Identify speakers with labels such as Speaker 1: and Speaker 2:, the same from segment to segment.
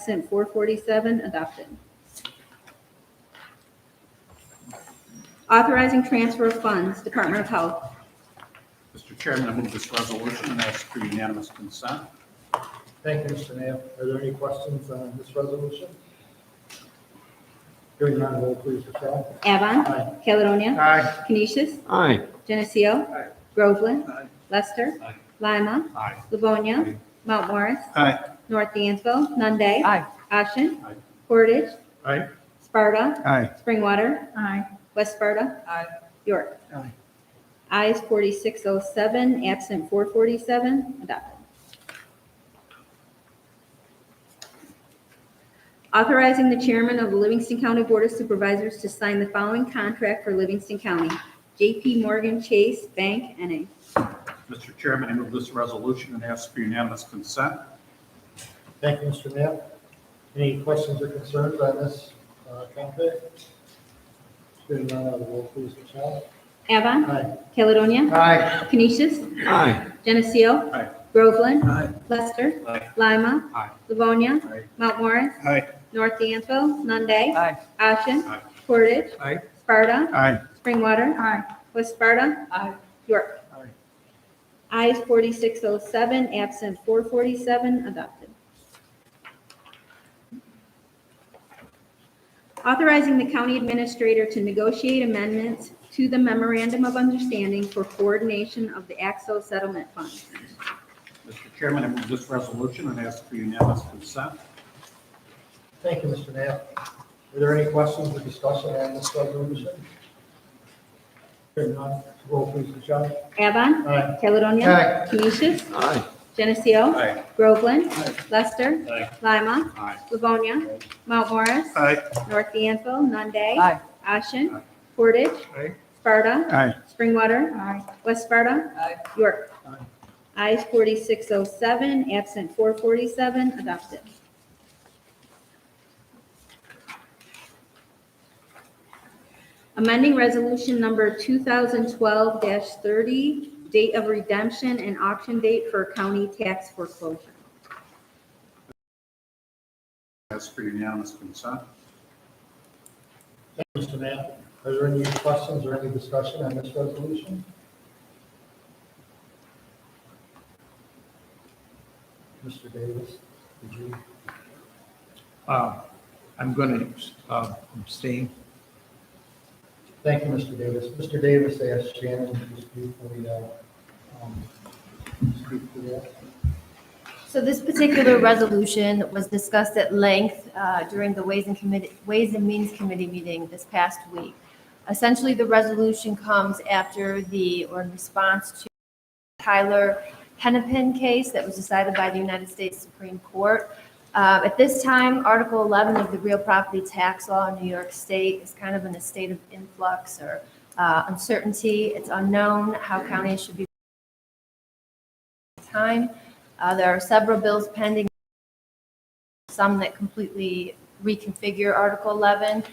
Speaker 1: Absent 447, adopted. Authorizing transfer of funds, Department of Health.
Speaker 2: Mr. Chairman, I move this resolution and ask for unanimous consent.
Speaker 3: Thank you, Mr. Knapp. Are there any questions on this resolution? Hearing none, roll please, Michelle.
Speaker 1: Avon.
Speaker 3: Aye.
Speaker 1: Caledonia.
Speaker 2: Aye.
Speaker 1: Canisius.
Speaker 4: Aye.
Speaker 1: Geneseo.
Speaker 2: Aye.
Speaker 1: Groveland.
Speaker 2: Aye.
Speaker 1: Lester.
Speaker 2: Aye.
Speaker 1: Lima.
Speaker 2: Aye.
Speaker 1: Livonia.
Speaker 2: Aye.
Speaker 1: Mount Morris.
Speaker 2: Aye.
Speaker 1: North Dansville. Nunde.
Speaker 5: Aye.
Speaker 1: Ashen.
Speaker 2: Aye.
Speaker 1: Portage.
Speaker 2: Aye.
Speaker 1: Sparta.
Speaker 2: Aye.
Speaker 1: Springwater.
Speaker 5: Aye.
Speaker 1: West Sparta.
Speaker 5: Aye.
Speaker 1: York.
Speaker 2: Aye.
Speaker 1: Ayes 4607, absent 447, adopted. Authorizing the chairman of the Livingston County Board of Supervisors to sign the following contract for Livingston County. JP Morgan Chase Bank, NA.
Speaker 2: Mr. Chairman, I move this resolution and ask for unanimous consent.
Speaker 3: Thank you, Mr. Knapp. Any questions or concerns on this uh, contract? Hearing none, roll please, Michelle.
Speaker 1: Avon,
Speaker 3: Aye.
Speaker 1: Caledonia,
Speaker 3: Aye.
Speaker 1: Canisius,
Speaker 4: Aye.
Speaker 1: Geneseo,
Speaker 2: Aye.
Speaker 1: Groveland,
Speaker 2: Aye.
Speaker 1: Lester,
Speaker 2: Aye.
Speaker 1: Lima,
Speaker 2: Aye.
Speaker 1: Livonia,
Speaker 2: Aye.
Speaker 1: Mount Morris,
Speaker 2: Aye.
Speaker 1: North Dansville, Nunde,
Speaker 5: Aye.
Speaker 1: Ashen,
Speaker 2: Aye.
Speaker 1: Portage,
Speaker 2: Aye.
Speaker 1: Sparta,
Speaker 2: Aye.
Speaker 1: Springwater,
Speaker 5: Aye.
Speaker 1: West Sparta,
Speaker 5: Aye.
Speaker 1: York.
Speaker 2: Aye.
Speaker 1: Ayes 4607, absent 447, adopted. Authorizing the county administrator to negotiate amendments to the memorandum of understanding for coordination of the AXO settlement fund.
Speaker 2: Mr. Chairman, I move this resolution and ask for unanimous consent.
Speaker 3: Thank you, Mr. Knapp. Are there any questions or discussion on this resolution? Hearing none, roll please, Michelle.
Speaker 1: Avon,
Speaker 3: Aye.
Speaker 1: Caledonia, Canisius,
Speaker 4: Aye.
Speaker 1: Geneseo,
Speaker 2: Aye.
Speaker 1: Groveland,
Speaker 2: Aye.
Speaker 1: Lester,
Speaker 2: Aye.
Speaker 1: Lima,
Speaker 2: Aye.
Speaker 1: Livonia, Mount Morris,
Speaker 2: Aye.
Speaker 1: North D'Anville, Nunde.
Speaker 5: Aye.
Speaker 1: Ashen,
Speaker 2: Aye.
Speaker 1: Portage,
Speaker 2: Aye.
Speaker 1: Sparta,
Speaker 2: Aye.
Speaker 1: Springwater,
Speaker 5: Aye.
Speaker 1: West Sparta,
Speaker 5: Aye.
Speaker 1: York.
Speaker 2: Aye.
Speaker 1: Ayes 4607, absent 447, adopted. Amending Resolution Number 2012-30, date of redemption and auction date for county tax foreclosure.
Speaker 2: Ask for unanimous consent.
Speaker 3: Thank you, Mr. Knapp. Are there any questions or any discussion on this resolution? Mr. Davis, did you?
Speaker 6: Uh, I'm going
Speaker 2: uh,
Speaker 6: to abstain.
Speaker 3: Thank you, Mr. Davis. Mr. Davis asked Shannon to just briefly, uh, um, speak to that.
Speaker 7: So this particular resolution was discussed at length uh, during the Ways and Committee, Ways and Means Committee meeting this past week. Essentially, the resolution comes after the, or in response to Tyler Hennepin case that was decided by the United States Supreme Court. Uh, At this time, Article 11 of the Real Property Tax Law in New York State is kind of in a state of influx or uh, uncertainty. It's unknown how counties should be time. Uh, There are several bills pending, some that completely reconfigure Article 11,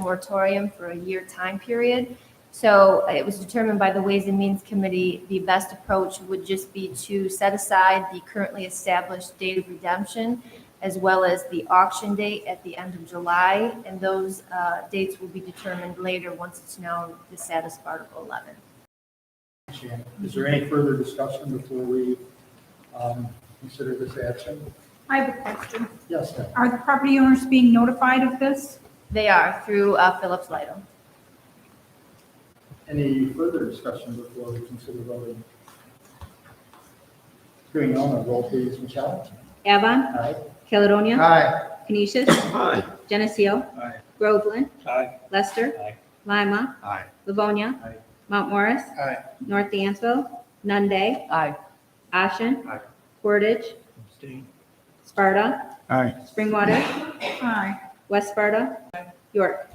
Speaker 7: moratorium for a year time period. So uh, it was determined by the Ways and Means Committee, the best approach would just be to set aside the currently established date of redemption as well as the auction date at the end of July, and those uh, dates will be determined later once it's known the status of Article 11.
Speaker 3: Shannon, is there any further discussion before we, um, consider this action?
Speaker 8: I have a question.
Speaker 3: Yes, ma'am.
Speaker 8: Are the property owners being notified of this?
Speaker 7: They are through uh, Phillips Lidle.
Speaker 3: Any further discussion before we consider voting? Hearing none, roll please, Michelle.
Speaker 1: Avon,
Speaker 3: Aye.
Speaker 1: Caledonia,
Speaker 3: Aye.
Speaker 1: Canisius,
Speaker 4: Aye.
Speaker 1: Geneseo,
Speaker 2: Aye.
Speaker 1: Groveland,
Speaker 2: Aye.
Speaker 1: Lester,
Speaker 2: Aye.
Speaker 1: Lima,
Speaker 2: Aye.
Speaker 1: Livonia,
Speaker 2: Aye.
Speaker 1: Mount Morris,
Speaker 2: Aye.
Speaker 1: North Dansville, Nunde,
Speaker 5: Aye.
Speaker 1: Ashen.
Speaker 2: Aye.
Speaker 1: Portage,
Speaker 6: Abstain.
Speaker 1: Sparta,
Speaker 2: Aye.
Speaker 1: Springwater,
Speaker 8: Aye.
Speaker 1: West Sparta, York.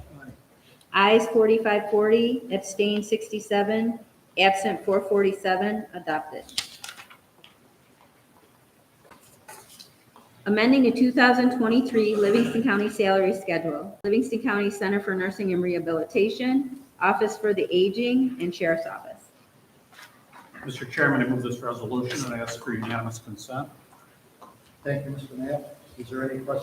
Speaker 1: Ayes 4540, abstain 67, absent 447, adopted. Amending the 2023 Livingston County Salary Schedule, Livingston County Center for Nursing and Rehabilitation, Office for the Aging, and Sheriff's Office.
Speaker 2: Mr. Chairman, I move this resolution and ask for unanimous consent.
Speaker 3: Thank you, Mr. Knapp. Is Is there any question